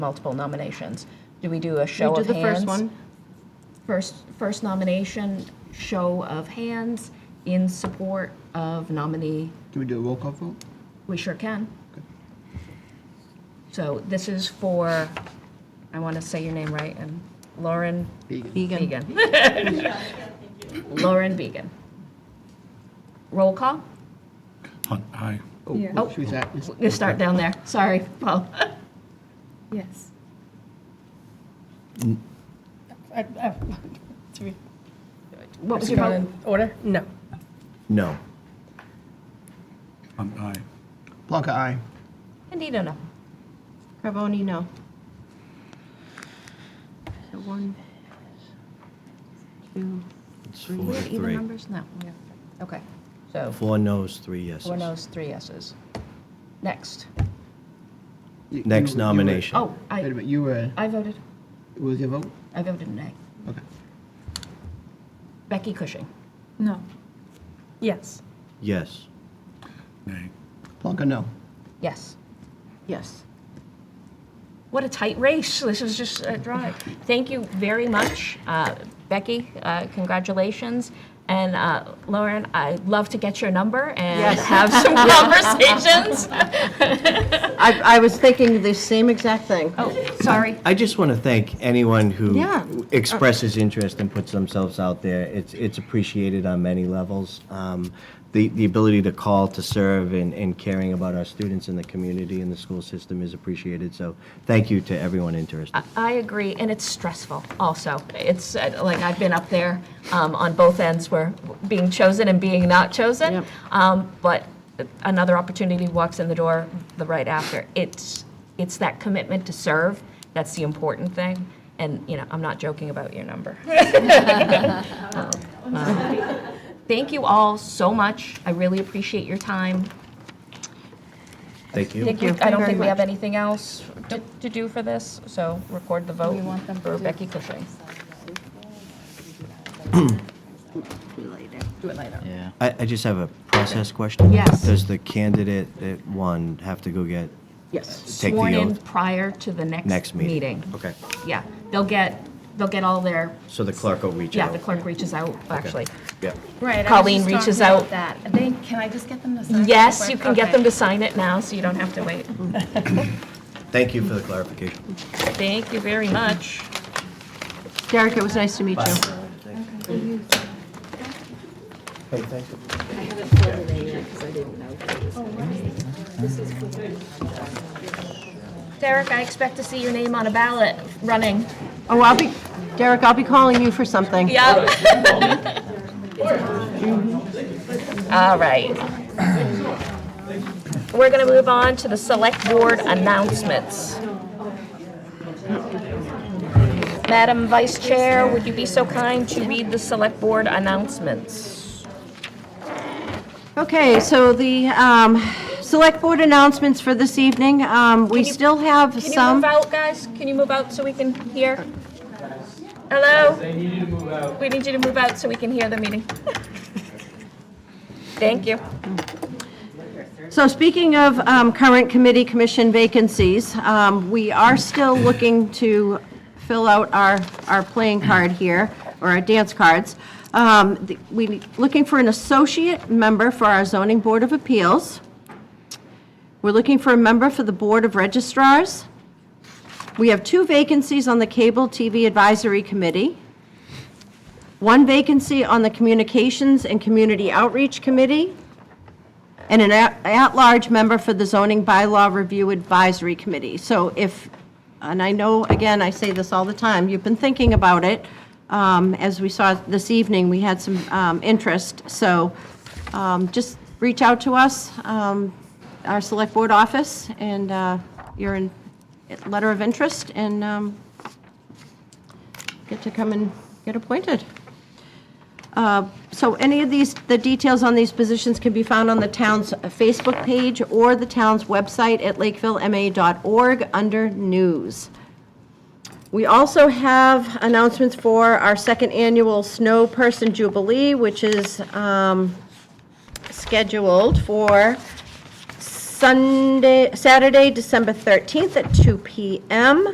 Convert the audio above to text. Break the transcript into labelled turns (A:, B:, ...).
A: multiple nominations. Do we do a show
B: We
A: of
B: do the first
A: hands?
B: one.
A: First, first nomination, show of hands in support of nominee,
C: Can we do a roll call vote?
A: we sure can. So this is for, I want to say your name right, and Lauren
B: Vegan.
A: Began. Lauren Began. Roll call?
D: Hunt, aye.
C: Oh, she was at,
A: You start down there, sorry, Paul.
E: Yes. I- I- to be-
A: What was
E: Is
A: your
E: it not
A: vote?
E: in order? No.
F: No.
D: Hunt, aye.
C: Blanca, aye.
A: Candida, no.
B: Carboni, no. So one, two,
F: It's
B: three.
F: four to
B: Even
F: three.
B: numbers? No. yeah.
A: Okay, so
F: Four noes, three yeses.
A: four noes, three yeses. Next.
C: You-
F: Next
C: you- you were-
F: nomination.
A: Oh,
C: Wait a
A: I,
C: minute, you were,
A: I voted,
C: what was your vote?
A: I voted nay.
C: Okay.
A: Becky Cushing.
E: No. Yes.
F: Yes.
D: Nay.
C: Blanca, no.
A: Yes.
B: Yes.
A: What a tight race. This is just a drive. Thank you very much, uh, Becky. Uh, congratulations. And uh, Lauren, I'd love to get your number and have some conversations.
B: I, I was thinking the same exact thing.
A: oh, sorry.
F: I just want to thank anyone who
B: Yeah.
A: Uh,
F: expresses interest and puts themselves out there. It's it's appreciated on many levels. Um, the the ability to call to serve and, and caring about our students in the community and the school system is appreciated. So thank you to everyone interested.
A: I agree, and it's stressful also. It's uh, like I've been up there um, on both ends where being chosen and being not chosen.
B: Yep.
A: Um, but another opportunity walks in the door the right after. It's it's that commitment to serve that's the important thing. And you know, I'm not joking about your number. Um, thank you all so much. I really appreciate your time.
F: Thank you.
A: Thank you. I don't think we have anything else to- to do for this, so record the vote for Becky Cushing.
F: I, I just have a process question.
A: Yes.
F: Does the candidate that won have to go get
B: Yes.
F: take
A: Sworn
F: the
A: in
F: oath
A: prior to the next.
F: next meeting? Okay.
A: Yeah, they'll get, they'll get all their,
F: So the clerk will reach
A: yeah,
F: out.
A: the clerk reaches out, actually.
F: Yeah.
G: Right. I was
A: Colleen
G: just talking
A: reaches
G: about
A: out.
G: That. They, can I just get them to sign? it
A: Yes,
G: quick?
A: you can get them
G: Okay.
A: to sign it now, so you don't have to wait.
F: Thank you for the clarification.
A: Thank you very much.
B: Derek, it was nice to meet you.
F: Hey, thank you.
A: Derek, I expect to see your name on a ballot running.
B: Oh, I'll be, Derek, I'll be calling you for something.
A: Yep. All right. We're going to move on to the select board announcements. Madam Vice Chair, would you be so kind to read the select board announcements?
B: Okay, so the um, select board announcements for this evening, um, we
A: you-
B: still have
A: Can you move
B: some.
A: out, guys? Can you move out so we can hear? Hello? We need you to move out so we can hear the meeting. Thank you.
B: So speaking of um, current committee commission vacancies, um, we are still looking to fill out our, our playing card here, or our dance cards. Um, the- We, looking for an associate member for our zoning board of appeals. We're looking for a member for the board of registrars. We have two vacancies on the Cable TV Advisory Committee, one vacancy on the Communications and Community Outreach Committee, and an at- at-large member for the Zoning Bylaw Review Advisory Committee. So if, and I know, again, I say this all the time, you've been thinking about it. Um, As we saw this evening, we had some um, interest, so um, just reach out to us, um, our Select Board office, and uh, you're in letter of interest, and um, get to come and get appointed. Uh, So any of these, the details on these positions can be found on the town's Facebook page or the town's website at lakevillema.org under News. We also have announcements for our second annual Snow Person Jubilee, which is um, scheduled for Sunday, Saturday, December 13th at 2 PM.